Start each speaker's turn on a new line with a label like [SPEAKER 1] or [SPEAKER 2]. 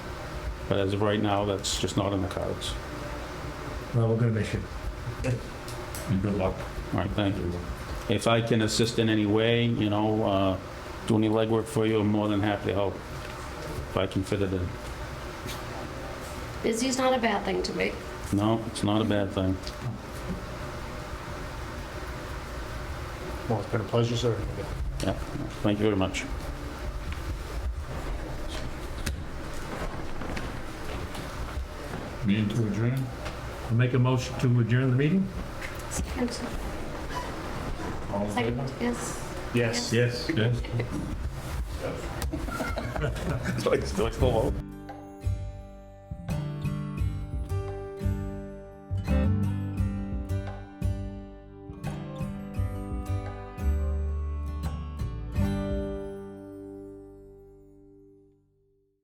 [SPEAKER 1] But as of right now, that's just not in the cards.
[SPEAKER 2] Well, we're gonna miss you.
[SPEAKER 3] And good luck.
[SPEAKER 1] All right, thank you. If I can assist in any way, you know, uh, do any legwork for you, I'm more than happy to help if I can fit it in.
[SPEAKER 4] Busy's not a bad thing to me.
[SPEAKER 1] No, it's not a bad thing.
[SPEAKER 5] Well, it's been a pleasure, sir.
[SPEAKER 1] Yeah, thank you very much.
[SPEAKER 3] Meeting to adjourn?
[SPEAKER 2] I'll make a motion to adjourn the meeting?
[SPEAKER 4] Second,
[SPEAKER 3] All in favor?
[SPEAKER 4] second, yes.
[SPEAKER 5] Yes.
[SPEAKER 2] Yes.
[SPEAKER 3] Yes.
[SPEAKER 5] Still, still